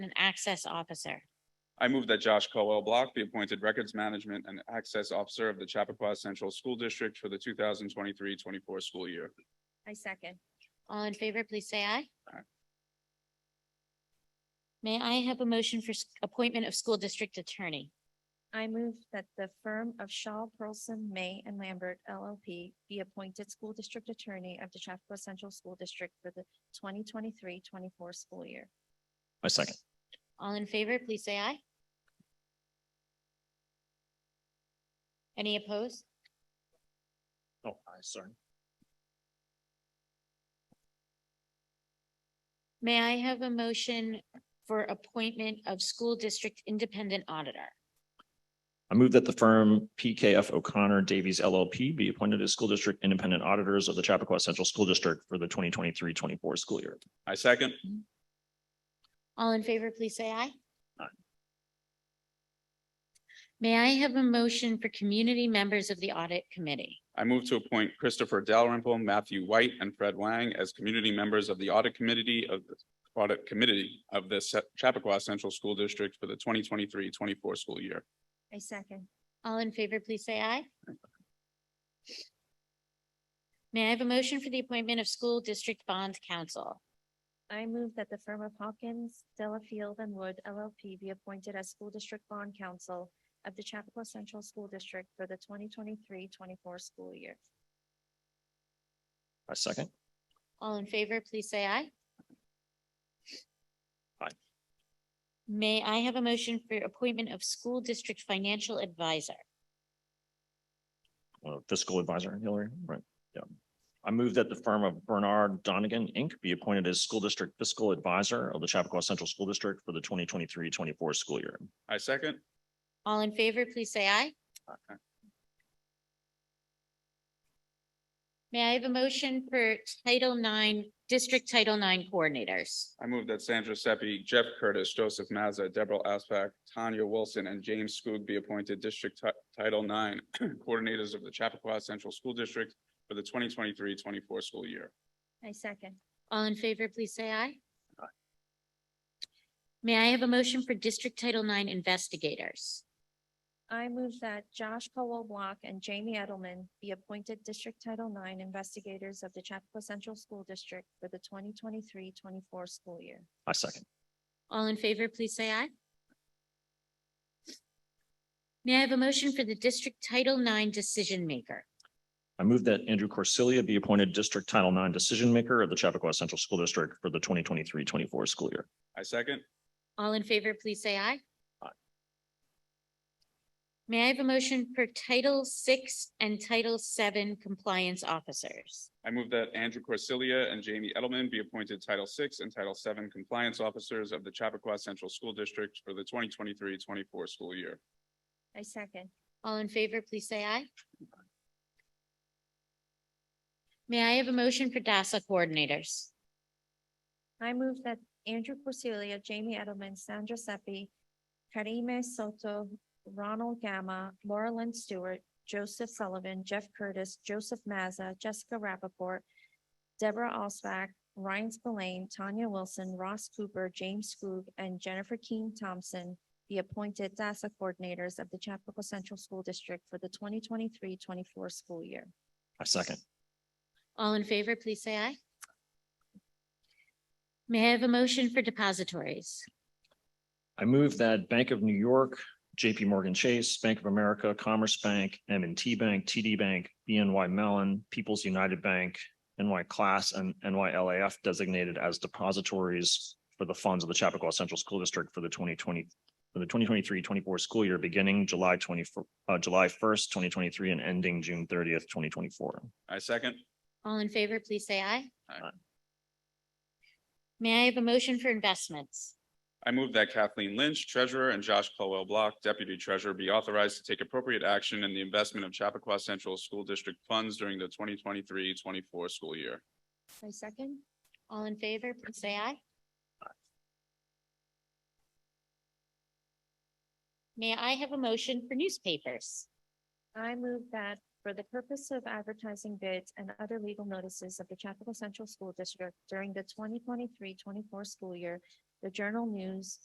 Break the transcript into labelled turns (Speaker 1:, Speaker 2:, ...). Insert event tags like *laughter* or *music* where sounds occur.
Speaker 1: and Access Officer.
Speaker 2: I move that Josh Colwell Block be appointed Records Management and Access Officer of the Chappaqua Central School District for the 2023-24 school year.
Speaker 3: I second.
Speaker 1: All in favor, please say aye.
Speaker 2: Aye.
Speaker 1: May I have a motion for s- appointment of school district attorney?
Speaker 3: I move that the firm of Shaw, Pearlson, May and Lambert LLP be appointed school district attorney of the Chappaqua Central School District for the 2023-24 school year.
Speaker 4: I second.
Speaker 1: All in favor, please say aye. Any opposed?
Speaker 4: Oh, I sorry.
Speaker 1: May I have a motion for appointment of school district independent auditor?
Speaker 4: I move that the firm PKF O'Connor Davies LLP be appointed as school district independent auditors of the Chappaqua Central School District for the 2023-24 school year.
Speaker 2: I second.
Speaker 1: All in favor, please say aye.
Speaker 4: Aye.
Speaker 1: May I have a motion for community members of the audit committee?
Speaker 2: I move to appoint Christopher Dalrymple, Matthew White, and Fred Wang as community members of the Audit Committee of the Audit Committee of the Se- Chappaqua Central School District for the 2023-24 school year.
Speaker 3: I second.
Speaker 1: All in favor, please say aye. May I have a motion for the appointment of school district bond counsel?
Speaker 3: I move that the firm of Hawkins, Delafield and Wood LLP be appointed as school district bond counsel of the Chappaqua Central School District for the 2023-24 school year.
Speaker 4: I second.
Speaker 1: All in favor, please say aye.
Speaker 4: Aye.
Speaker 1: May I have a motion for appointment of school district financial advisor?
Speaker 4: Uh, Fiscal advisor Hillary, right? Yeah. I move that the firm of Bernard Donigan Inc. be appointed as school district fiscal advisor of the Chappaqua Central School District for the 2023-24 school year.
Speaker 2: I second.
Speaker 1: All in favor, please say aye. May I have a motion for Title IX, District Title IX coordinators?
Speaker 2: I move that Sandra Seppi, Jeff Curtis, Joseph Mazza, Deborah Aspak, Tanya Wilson, and James Skoog be appointed District Ti- Title IX *clears throat* Coordinators of the Chappaqua Central School District for the 2023-24 school year.
Speaker 3: I second.
Speaker 1: All in favor, please say aye. May I have a motion for District Title IX investigators?
Speaker 3: I move that Josh Colwell Block and Jamie Edelman be appointed District Title IX investigators of the Chappaqua Central School District for the 2023-24 school year.
Speaker 4: I second.
Speaker 1: All in favor, please say aye. May I have a motion for the District Title IX decision maker?
Speaker 4: I move that Andrew Corsilia be appointed district Title IX decision maker of the Chappaqua Central School District for the 2023-24 school year.
Speaker 2: I second.
Speaker 1: All in favor, please say aye.
Speaker 4: Aye.
Speaker 1: May I have a motion for Title VI and Title VII compliance officers?
Speaker 2: I move that Andrew Corsilia and Jamie Edelman be appointed Title VI and Title VII Compliance Officers of the Chappaqua Central School District for the 2023-24 school year.
Speaker 3: I second.
Speaker 1: All in favor, please say aye. May I have a motion for DASSA coordinators?
Speaker 3: I move that Andrew Corsilia, Jamie Edelman, Sandra Seppi, Karime Soto, Ronald Gamma, Laura Lynn Stewart, Joseph Sullivan, Jeff Curtis, Joseph Mazza, Jessica Rappaport, Deborah Osback, Ryan Spillane, Tanya Wilson, Ross Cooper, James Skoog, and Jennifer Keen Thompson be appointed DASSA coordinators of the Chapakua Central School District for the 2023-24 school year.
Speaker 4: I second.
Speaker 1: All in favor, please say aye. May I have a motion for depositories?
Speaker 4: I move that Bank of New York, JP Morgan Chase, Bank of America, Commerce Bank, m and T Bank, TD Bank, BNY Mellon, People's United Bank, NY Class, and NYLAF designated as depositories for the funds of the Chappaqua Central School District for the 2020 for the 2023-24 school year beginning July 24, uh, July 1st, 2023 and ending June 30th, 2024.
Speaker 2: I second.
Speaker 1: All in favor, please say aye.
Speaker 2: Aye.
Speaker 1: May I have a motion for investments?
Speaker 2: I move that Kathleen Lynch, Treasurer, and Josh Colwell Block, Deputy Treasurer, be authorized to take appropriate action in the investment of Chappaqua Central School District funds during the 2023-24 school year.
Speaker 3: I second.
Speaker 1: All in favor, please say aye. May I have a motion for newspapers?
Speaker 3: I move that for the purpose of advertising bids and other legal notices of the Chapakua Central School District during the 2023-24 school year, the Journal News,